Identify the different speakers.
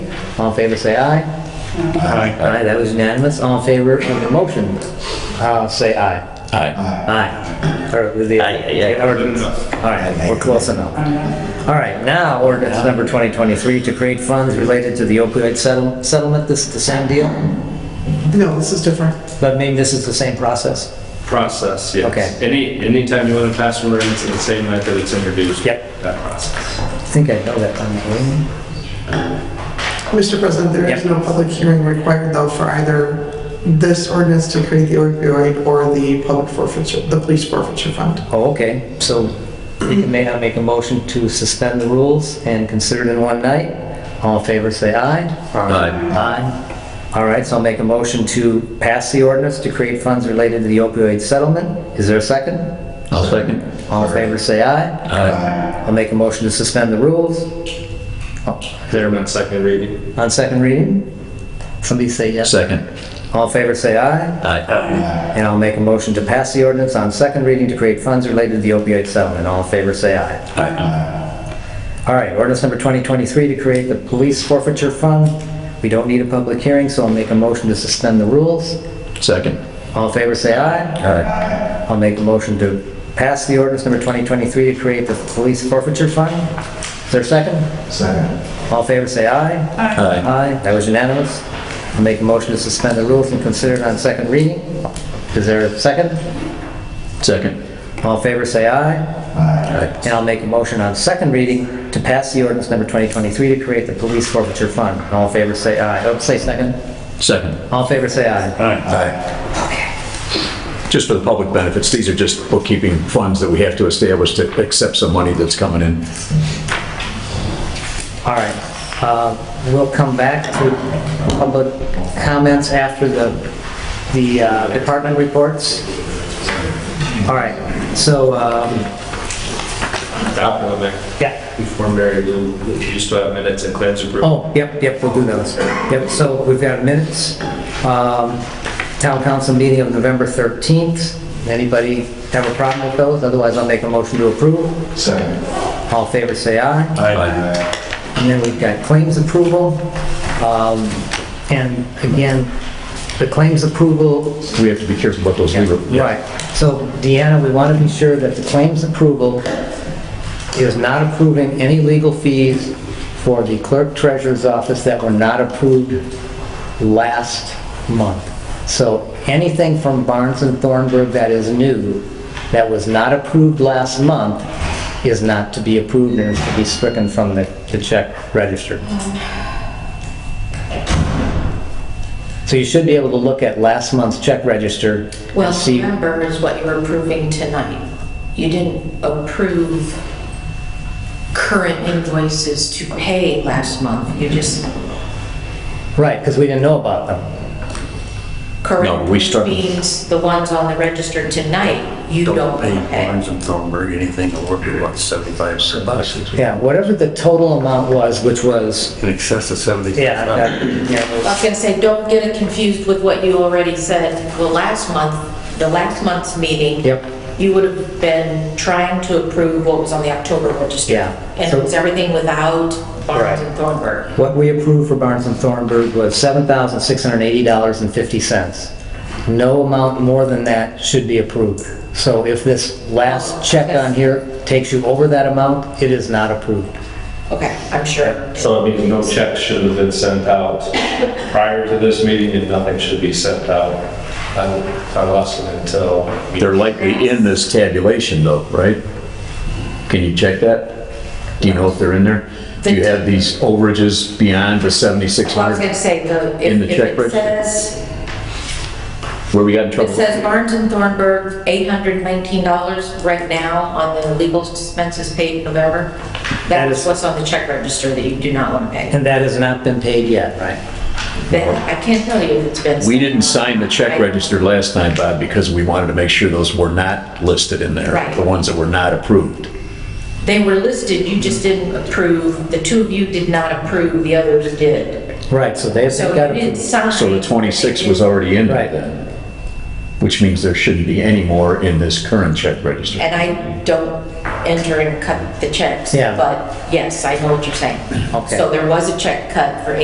Speaker 1: All in favor, say aye.
Speaker 2: Aye.
Speaker 1: Aye, that was unanimous. All in favor of the motion, uh, say aye.
Speaker 3: Aye.
Speaker 1: Aye. Or with the-
Speaker 3: Aye, aye, aye.
Speaker 1: Ordinance. All right, we're close enough. All right, now ordinance number 2023 to create funds related to the opioid settle- settlement. This is the same deal?
Speaker 4: No, this is different.
Speaker 1: But maybe this is the same process?
Speaker 2: Process, yes.
Speaker 1: Okay.
Speaker 2: Any, anytime you want to pass an ordinance in the same night that it's introduced.
Speaker 1: Yep.
Speaker 2: That process.
Speaker 1: I think I know that one. don't I?
Speaker 4: Mr. President, there
Speaker 1: Yep.
Speaker 4: is no public hearing required though for either this ordinance to create the opioid or the public forfeiture, the police forfeiture fund.
Speaker 1: Oh, okay, so you may not make a motion to suspend the rules and consider it in one night? All in favor, say aye.
Speaker 3: Aye.
Speaker 1: Aye. All right, so I'll make a motion to pass the ordinance to create funds related to the opioid settlement. Is there a second?
Speaker 3: I'll second.
Speaker 1: All in favor, say aye.
Speaker 3: Aye.
Speaker 1: I'll make a motion to suspend the rules. Oh,
Speaker 2: There, on second reading.
Speaker 1: On second reading? Somebody say yes.
Speaker 3: Second.
Speaker 1: All in favor, say aye.
Speaker 3: Aye.
Speaker 1: And I'll make a motion to pass the ordinance on second reading to create funds related to the opioid settlement. All in favor, say aye.
Speaker 3: Aye.
Speaker 1: All right, ordinance number 2023 to create the police forfeiture fund. We don't need a public hearing, so I'll make a motion to suspend the rules.
Speaker 3: Second.
Speaker 1: All in favor, say aye.
Speaker 3: Aye.
Speaker 1: I'll make a motion to pass the ordinance number 2023 to create the police forfeiture fund. Is there a second? Second. All in favor, say aye.
Speaker 3: Aye.
Speaker 1: Aye, that was unanimous. I'll make a motion to suspend the rules and consider it on second reading. Is there a second?
Speaker 3: Second.
Speaker 1: All in favor, say aye.
Speaker 3: Aye.
Speaker 1: And I'll make a motion on second reading to pass the ordinance number 2023 to create the police forfeiture fund. All in favor, say aye. Oh, say second.
Speaker 3: Second.
Speaker 1: All in favor, say aye.
Speaker 5: Aye. Just for the public benefits, these are just bookkeeping funds that we have to establish to accept some money that's coming in.
Speaker 1: All right. Uh, We'll come back to public comments after the, the uh, department reports. All right, so, um,
Speaker 2: That one there.
Speaker 1: yeah.
Speaker 2: Before Mary, Lou, you used to have minutes and plans approved.
Speaker 1: Oh, yep, yep, we'll do those. Yep, so we've got minutes. Um, Town council meeting of November 13th. Anybody have a problem with those? Otherwise, I'll make a motion to approve.
Speaker 5: Second.
Speaker 1: All in favor, say aye.
Speaker 3: Aye.
Speaker 1: And then we've got claims approval. Um, And again, the claims approval,
Speaker 5: We have to be careful about those legal.
Speaker 1: right. So Deanna, we want to be sure that the claims approval is not approving any legal fees for the clerk treasurer's office that were not approved last month. So anything from Barnes and Thornburg that is new, that was not approved last month, is not to be approved and is to be stricken from the the check register. So you should be able to look at last month's check register. and
Speaker 6: Well,
Speaker 1: see.
Speaker 6: November is what you're approving tonight. You didn't approve current invoices to pay last month. You just,
Speaker 1: Right, because we didn't know about them.
Speaker 6: current
Speaker 3: we struck-
Speaker 6: means the ones on the register tonight, you don't
Speaker 7: don't pay
Speaker 6: pay.
Speaker 7: Barnes and Thornburg anything over, what, 75 bucks?
Speaker 1: Yeah, whatever the total amount was, which was,
Speaker 7: In excess of 75.
Speaker 1: yeah, that- yeah, it
Speaker 6: I was
Speaker 1: was-
Speaker 6: gonna say, don't get it confused with what you already said. The last month, the last month's meeting.
Speaker 1: Yep.
Speaker 6: You would have been trying to approve what was on the October register.
Speaker 1: Yeah.
Speaker 6: And
Speaker 1: So-
Speaker 6: it was everything without
Speaker 1: Right.
Speaker 6: Barnes and Thornburg.
Speaker 1: what we approved for Barnes and Thornburg was $7,680.50. No amount more than that should be approved. So if this last check on here takes you over that amount, it is not approved.
Speaker 6: Okay, I'm sure.
Speaker 2: So I mean, no check should have been sent out prior to this meeting and nothing should be sent out. I I lost it until.
Speaker 3: They're likely in this tabulation though, right? Can you check that? Do you know if they're in there? Do you have these overages beyond the
Speaker 6: Well, I was
Speaker 3: 7,600
Speaker 6: gonna say, the,
Speaker 3: In the
Speaker 6: if if
Speaker 3: check
Speaker 6: it
Speaker 3: register.
Speaker 6: says,
Speaker 3: where we got in
Speaker 6: it
Speaker 3: trouble?
Speaker 6: says Barnes and Thornburg, $819 right now on the legal expenses paid in November,
Speaker 1: That
Speaker 6: that
Speaker 1: is-
Speaker 6: is what's on the check register that you do not want to pay.
Speaker 1: And that has not been paid yet, right?
Speaker 6: Then, I can't tell you if it's been.
Speaker 3: We didn't sign the check
Speaker 6: Right.
Speaker 3: register last time, Bob, because we wanted to make sure those were not listed in there,
Speaker 6: Right.
Speaker 3: the ones that were not approved.
Speaker 6: They were listed, you just didn't approve, the two of you did not approve, the others did.
Speaker 1: Right, so they've
Speaker 6: So
Speaker 1: got
Speaker 6: you didn't
Speaker 1: to...
Speaker 6: sign.
Speaker 3: So the 26 was already in there
Speaker 1: Right.
Speaker 3: then, which means there shouldn't be any more in this current check register.
Speaker 6: And I don't enter and cut the checks,
Speaker 1: Yeah.
Speaker 6: but yes, I know what you're saying.
Speaker 1: Okay.
Speaker 6: So there was a check cut for